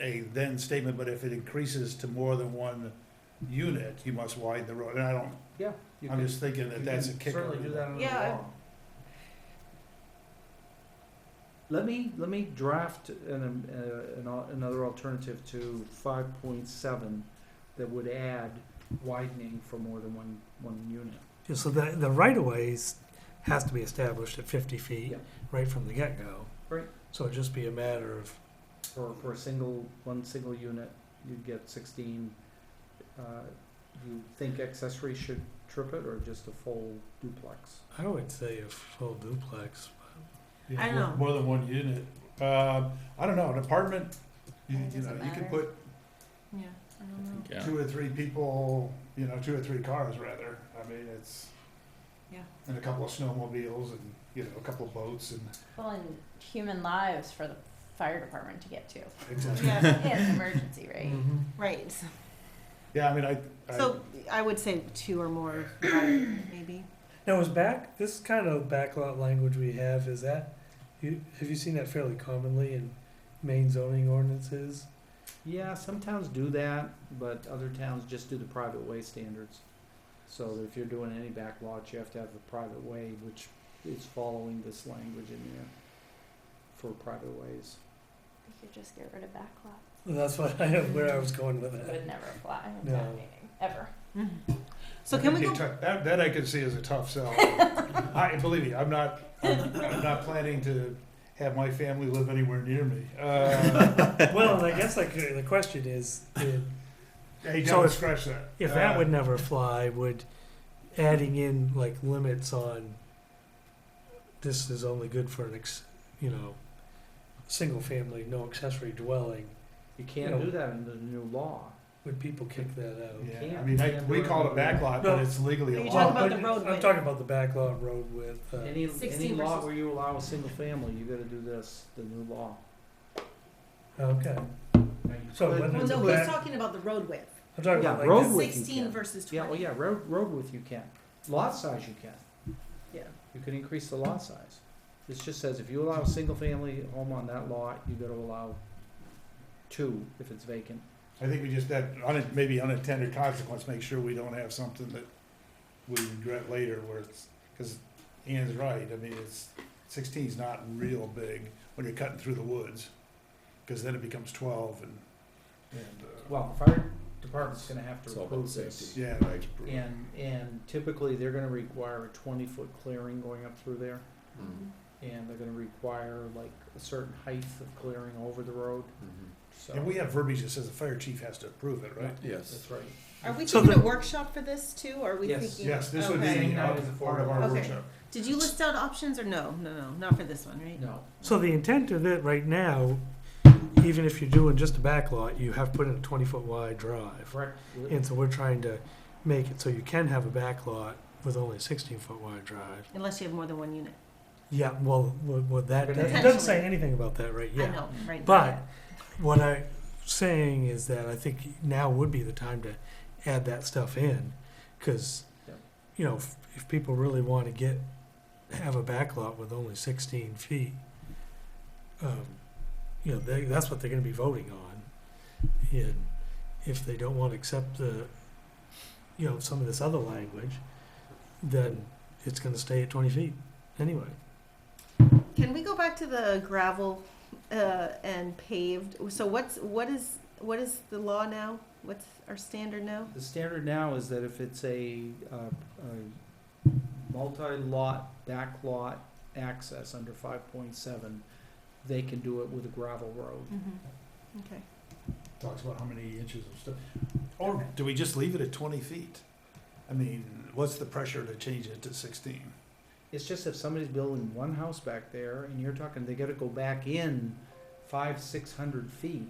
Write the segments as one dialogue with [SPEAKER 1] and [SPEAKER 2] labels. [SPEAKER 1] a then statement, but if it increases to more than one unit, you must widen the road, and I don't,
[SPEAKER 2] Yeah. you
[SPEAKER 1] I'm
[SPEAKER 2] can-
[SPEAKER 1] just thinking
[SPEAKER 2] you
[SPEAKER 1] that that's a
[SPEAKER 2] can
[SPEAKER 1] kicker.
[SPEAKER 2] Certainly do that under the
[SPEAKER 3] Yeah, I-
[SPEAKER 2] law. Let me, let me draft an, um, uh, an, al- another alternative to five point seven that would add widening for more than one, one unit.
[SPEAKER 4] Yeah, So the, the right of ways has to be established at fifty feet
[SPEAKER 2] Yeah.
[SPEAKER 4] right from the get-go.
[SPEAKER 2] Right.
[SPEAKER 4] So it'd just be a matter of,
[SPEAKER 2] For, for a single, one single unit, you'd get sixteen. Uh, You think accessory should trip it or just a full duplex?
[SPEAKER 4] I would say a full duplex.
[SPEAKER 1] Yeah,
[SPEAKER 3] I
[SPEAKER 1] more-
[SPEAKER 3] know.
[SPEAKER 1] More than one unit, uh, I don't know, an apartment, you, you
[SPEAKER 3] It
[SPEAKER 1] know,
[SPEAKER 3] doesn't
[SPEAKER 1] you could
[SPEAKER 3] matter.
[SPEAKER 1] put
[SPEAKER 3] Yeah, I don't know.
[SPEAKER 5] Yeah.
[SPEAKER 1] two or three people, you know, two or three cars rather, I mean, it's.
[SPEAKER 3] Yeah.
[SPEAKER 1] And a couple of snowmobiles and, you know, a couple of boats and.
[SPEAKER 6] Well, and human lives for the fire department to get to.
[SPEAKER 1] Exactly.
[SPEAKER 3] Yeah,
[SPEAKER 6] It's an emergency, right?
[SPEAKER 2] Mm-hmm.
[SPEAKER 3] right.
[SPEAKER 1] Yeah, I mean, I, I.
[SPEAKER 3] So I would say two or more, maybe.
[SPEAKER 4] Now, is back, this kind of backlot language we have, is that, you, have you seen that fairly commonly in main zoning ordinances?
[SPEAKER 2] Yeah, some towns do that, but other towns just do the private way standards. So that if you're doing any back lots, you have to have a private way, which is following this language in there for private ways.
[SPEAKER 6] We could just get rid of backlots.
[SPEAKER 4] Well, That's what I, where I was going with
[SPEAKER 6] It
[SPEAKER 4] that.
[SPEAKER 6] would never fly in
[SPEAKER 4] uh, No.
[SPEAKER 6] that meeting, ever.
[SPEAKER 3] Mm-hmm. So
[SPEAKER 1] I
[SPEAKER 3] can we
[SPEAKER 1] think
[SPEAKER 3] go,
[SPEAKER 1] it took- That, that I could see as a tough sell. I, believe me, I'm not, I'm I'm not planning to have my family live anywhere near me. Uh,
[SPEAKER 4] Well, and I guess like, uh, the question is, uh,
[SPEAKER 1] Hey,
[SPEAKER 4] So
[SPEAKER 1] don't
[SPEAKER 4] if-
[SPEAKER 1] scratch that.
[SPEAKER 4] if that
[SPEAKER 1] Uh,
[SPEAKER 4] would never fly, would adding in like limits on this is only good for an ex, you know, single family, no accessory dwelling,
[SPEAKER 2] You can't do that under the new law.
[SPEAKER 4] would people kick that out?
[SPEAKER 1] Yeah, I mean, I, we call it a backlot, but it's legally a
[SPEAKER 3] Are you
[SPEAKER 1] lot.
[SPEAKER 3] talking about
[SPEAKER 4] But
[SPEAKER 3] the road
[SPEAKER 4] I'm
[SPEAKER 3] width?
[SPEAKER 4] talking about the backlot road width. Uh,
[SPEAKER 2] Any, any
[SPEAKER 3] 16
[SPEAKER 2] law
[SPEAKER 3] versus-
[SPEAKER 2] where you allow a single family, you gotta do this, the new law.
[SPEAKER 4] okay, So
[SPEAKER 2] But-
[SPEAKER 4] whether
[SPEAKER 3] well,
[SPEAKER 4] it's a
[SPEAKER 3] no,
[SPEAKER 4] back-
[SPEAKER 3] he's talking about the road width.
[SPEAKER 4] I'm talking
[SPEAKER 2] Yeah,
[SPEAKER 4] about like
[SPEAKER 2] road
[SPEAKER 4] that-
[SPEAKER 2] width. you
[SPEAKER 3] Sixteen
[SPEAKER 2] can.
[SPEAKER 3] versus
[SPEAKER 2] Yeah, well,
[SPEAKER 3] twenty.
[SPEAKER 2] yeah, road, road width you can. Lot size you can.
[SPEAKER 3] Yeah.
[SPEAKER 2] You can increase the lot size. This just says if you allow a single family home on that lot, you gotta allow two if it's vacant.
[SPEAKER 1] I think we just, that, un- maybe unintended consequence, make sure we don't have something that we regret later where it's, because Anne's right, I mean, it's, sixteen's not real big when you're cutting through the woods. Because then it becomes twelve and, and, uh.
[SPEAKER 2] Well, the fire department's gonna have
[SPEAKER 5] It's
[SPEAKER 2] to
[SPEAKER 5] all about
[SPEAKER 2] approve this.
[SPEAKER 5] safety.
[SPEAKER 1] Yeah, like.
[SPEAKER 2] And, and typically, they're gonna require a twenty-foot clearing going up through there, and they're gonna require like a certain height of clearing over the road,
[SPEAKER 5] Mm-hmm.
[SPEAKER 2] so.
[SPEAKER 1] And we have verbiage that says the fire chief has to approve it, right?
[SPEAKER 5] Yes.
[SPEAKER 2] That's right.
[SPEAKER 3] Are we
[SPEAKER 4] So
[SPEAKER 3] doing a
[SPEAKER 4] the-
[SPEAKER 3] workshop for this too, or are we
[SPEAKER 2] Yes.
[SPEAKER 3] thinking?
[SPEAKER 1] Yes, this would
[SPEAKER 3] Okay.
[SPEAKER 1] be
[SPEAKER 2] Not
[SPEAKER 1] uh,
[SPEAKER 2] as a
[SPEAKER 1] part of our
[SPEAKER 3] Okay.
[SPEAKER 1] workshop.
[SPEAKER 3] Did you list out options or no? No, no, not for this one, right?
[SPEAKER 2] No.
[SPEAKER 4] So the intent of it right now, even if you're doing just a backlot, you have to put in a 20 foot wide drive.
[SPEAKER 2] Correct.
[SPEAKER 4] And so we're trying to make it so you can have a backlot with only a 16 foot wide drive.
[SPEAKER 3] Unless you have more than one unit.
[SPEAKER 4] Yeah, well, what, what that it doesn't
[SPEAKER 3] Potentially.
[SPEAKER 4] say anything about that right
[SPEAKER 3] I
[SPEAKER 4] yet.
[SPEAKER 3] know, right?
[SPEAKER 4] But what I'm saying is that I think now would be the time to add that stuff in, because
[SPEAKER 2] Yep.
[SPEAKER 4] you know if, if people really want to get have a backlot with only 16 feet, um, you know they, that's what they're going to be voting on, and if they don't want to accept the you know some of this other language, then it's going to stay at 20 feet anyway.
[SPEAKER 3] Can we go back to the gravel uh, and paved? So what's, what is, what is the law now? What's our standard now?
[SPEAKER 2] The standard now is that if it's a, uh, a multi-lot, backlot access under five point seven, they can do it with a gravel road.
[SPEAKER 3] Okay.
[SPEAKER 1] Talks about how many inches of stuff. Or do we just leave it at twenty feet? I mean, what's the pressure to change it to sixteen?
[SPEAKER 2] It's just if somebody's building one house back there and you're talking, they gotta go back in five, six hundred feet.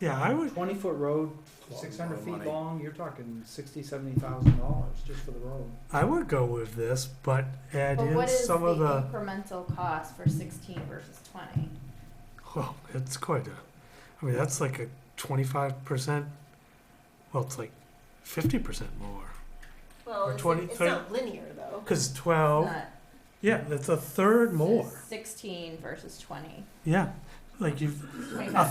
[SPEAKER 4] Yeah, I would
[SPEAKER 2] Twenty-foot road,
[SPEAKER 5] Lot
[SPEAKER 2] six hundred
[SPEAKER 5] more
[SPEAKER 2] feet
[SPEAKER 5] money.
[SPEAKER 2] long, you're talking sixty, seventy thousand dollars just for the road.
[SPEAKER 4] I would go with this, but add
[SPEAKER 6] But
[SPEAKER 4] in
[SPEAKER 6] what is the
[SPEAKER 4] some of the.
[SPEAKER 6] incremental cost for sixteen versus twenty?
[SPEAKER 4] Well, it's quite a. I mean, that's like a twenty-five percent. Well, it's like fifty percent more
[SPEAKER 3] Well,
[SPEAKER 4] Or it's- 20, it's 30.
[SPEAKER 3] linear though.
[SPEAKER 4] because twelve.
[SPEAKER 6] Not-
[SPEAKER 4] Yeah, that's a third more.
[SPEAKER 6] Sixteen versus twenty.
[SPEAKER 4] Yeah, like you've
[SPEAKER 6] 25.
[SPEAKER 4] a